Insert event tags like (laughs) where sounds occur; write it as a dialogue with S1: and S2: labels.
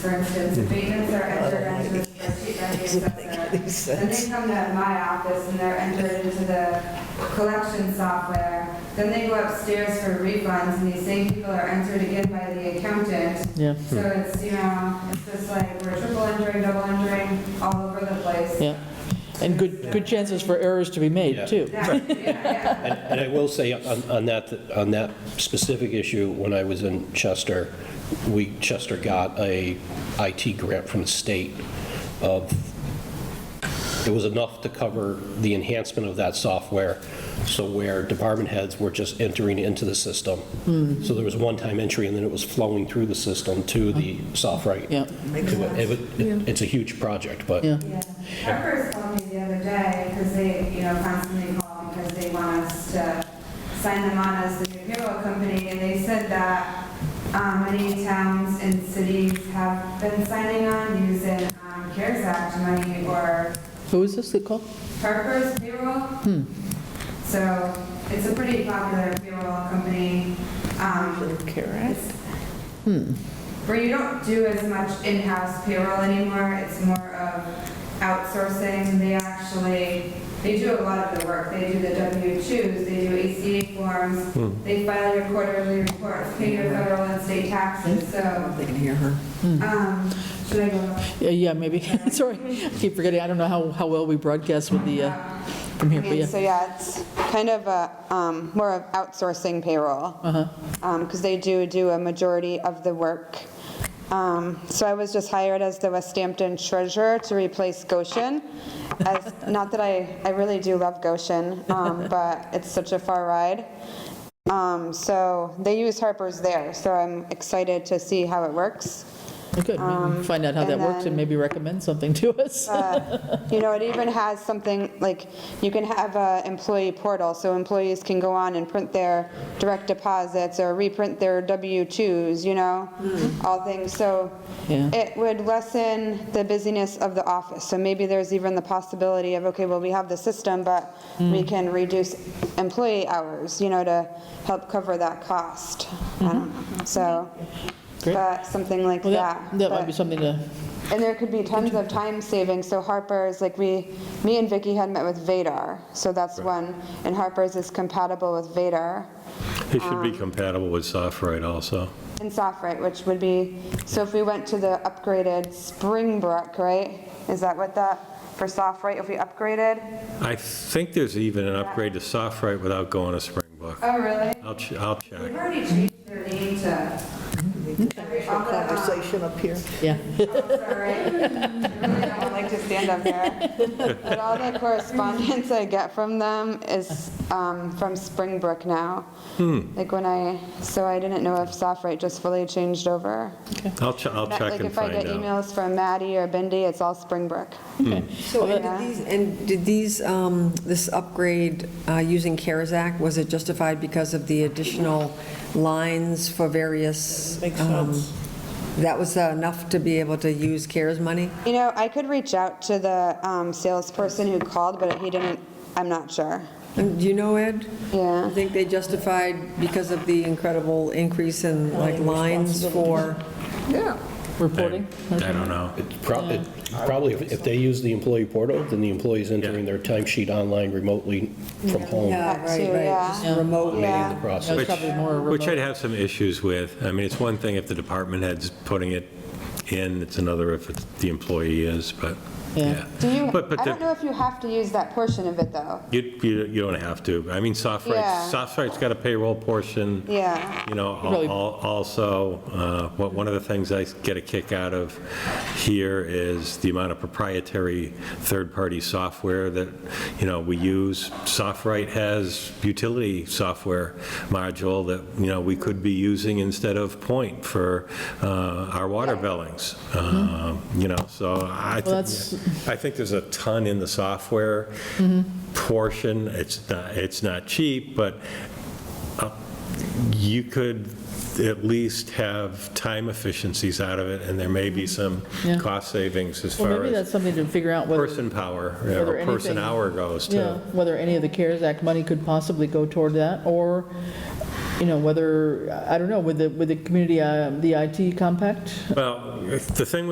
S1: For instance, abatements are entered into the spreadsheet by the assessor. Then they come to my office and they're entered into the collection software. Then they go upstairs for refunds and these same people are entered again by the accountant.
S2: Yeah,
S1: So it's, you know, it's just like we're triple entering, double entering, all over the
S2: (laughs)
S1: place.
S2: yeah. And good, good chances for errors to be
S3: Yeah.
S2: made, too.
S1: That- yeah,
S3: And and I will say on on that, on that specific issue, when I was in Chester, we, Chester got a IT grant from the state of, it was enough to cover the enhancement of that software, so where department heads were just entering into the system. So there was one-time entry, and then it was flowing through the system to the software.
S2: Yeah.
S3: It would- it- It's a huge project, but
S2: Yeah.
S1: Yeah, Harper's called me the other day because they, you know, constantly call because they want us to sign them on as the new payroll company. And they said that um, many towns and cities have been signing on using um, CARES Act money or
S2: Who is this that called?
S1: Harper's payroll. So it's a pretty popular payroll company. um, it's-
S2: Hmm.
S1: Where you don't do as much in-house payroll anymore, it's more of outsourcing. They actually, they do a lot of the work. They do the W-2s, they do ACA forms, they file your quarterly reports, pay your federal and state taxes, so,
S4: They can hear her. Hmm.
S1: um, should I go?
S2: Yeah, yeah, maybe, (laughs) sorry. I keep forgetting, I don't know how, how well we broadcast with the, uh, from here, but
S5: And
S2: yeah.
S5: so, yeah, it's kind of a, um, more of outsourcing payroll.
S2: Uh-huh.
S5: Because they do do a majority of the work. Um, So I was just hired as the West Hampton treasurer to replace Goshen.
S2: (laughs)
S5: As, not that I, I really do love Goshen, um, but it's such a far ride. Um, So they use Harper's there, so I'm excited to see how it works.
S2: Good, maybe find out how that
S5: um, and
S2: works and
S5: then-
S2: maybe recommend something to
S5: (laughs)
S2: us.
S5: You know, it even has something, like, you can have a employee portal, so employees can go on and print their direct deposits or reprint their W-2s, you know, all things, so
S2: Hmm. Yeah.
S5: it would lessen the busyness of the office, so maybe there's even the possibility of, okay, well, we have the system, but
S2: Hmm.
S5: we can reduce employee hours, you know, to help cover that cost. I don't know. So,
S2: Hmm. Great.
S5: but something like
S2: Well,
S5: that.
S2: that, that might be
S5: but-
S2: something to,
S5: and there could be tons of time savings, so Harper's, like we, me and Vicky had met with Vadar, so that's one, and Harper's is compatible with Vadar
S6: It should
S5: Um,
S6: be compatible with SoftWrite also.
S5: and Sofrite, which would be, so if we went to the upgraded Springbrook, right? Is that what that, for Sofrite, if we upgraded?
S6: I think there's even an upgrade to SoftWrite without going to Springbrook.
S1: Oh, really?
S6: I'll, ch- I'll
S1: They've
S6: check.
S1: already changed their name to. All the, um,
S4: Conversation up here.
S2: yeah.
S1: Sorry. I really
S5: I
S1: don't
S5: would
S1: like
S5: like to stand up there. But all the correspondence I get from them is um, from Springbrook now.
S6: Hmm.
S5: Like when I, so I didn't know if Sofrite just fully changed over.
S6: I'll, ch- I'll check
S5: Like
S6: and
S5: if I
S6: find
S5: get
S6: out.
S5: emails from Maddie or Bindi, it's all Springbrook.
S4: So, and
S5: Yeah.
S4: did these, and did these, um, this upgrade uh, using CARES Act, was it justified because of the additional lines for various? Makes sense. That was uh, enough to be able to use CARES money?
S5: You know, I could reach out to the um, salesperson who called, but he didn't, I'm not sure.
S4: And do you know, Ed?
S5: Yeah.
S4: I think they justified because of the incredible increase in like lines for,
S2: Reporting?
S6: I don't know.
S3: It's prob- it- Probably, if if they use the employee portal, then the employee's entering their timesheet online remotely from home.
S4: yeah,
S5: That
S4: right,
S5: too,
S4: right,
S5: yeah.
S4: just remote.
S5: Yeah.
S2: That was
S3: Process.
S2: probably more
S6: Which I'd
S2: remote.
S6: have some issues with. I mean, it's one thing if the department head's putting it in, it's another if it's- the employee is, but,
S2: Yeah.
S6: yeah.
S5: Do you,
S6: But, but
S5: I don't know
S6: the-
S5: if you have to use that portion of it, though.
S6: you, you you don't have to. I mean,
S5: Yeah.
S6: SoftWrite's, SoftWrite's got a payroll portion.
S5: Yeah.
S6: You know, al-
S2: Really-
S6: al- also, uh, what, one of the things I get a kick out of here is the amount of proprietary third-party software that, you know, we use. SoftWrite has utility software module that, you know, we could be using instead of Point for uh, our water billings, Uh, you know, so I,
S2: Mm-hmm. Well, that's- Mm-hmm.
S6: thi- I think there's a ton in the software portion. It's not, it's not cheap, but you could at least have time efficiencies out of it, and there may be some
S2: Mm-hmm. Yeah.
S6: cost savings as
S2: Well,
S6: far
S2: maybe that's
S6: as
S2: something to figure out whether,
S6: person power,
S2: Whether
S6: or person
S2: anything-
S6: hour goes,
S2: yeah,
S6: too.
S2: whether any of the CARES Act money could possibly go toward that, or you know, whether, I don't know, with the, with the community, uh, the IT compact?
S6: Well, the thing with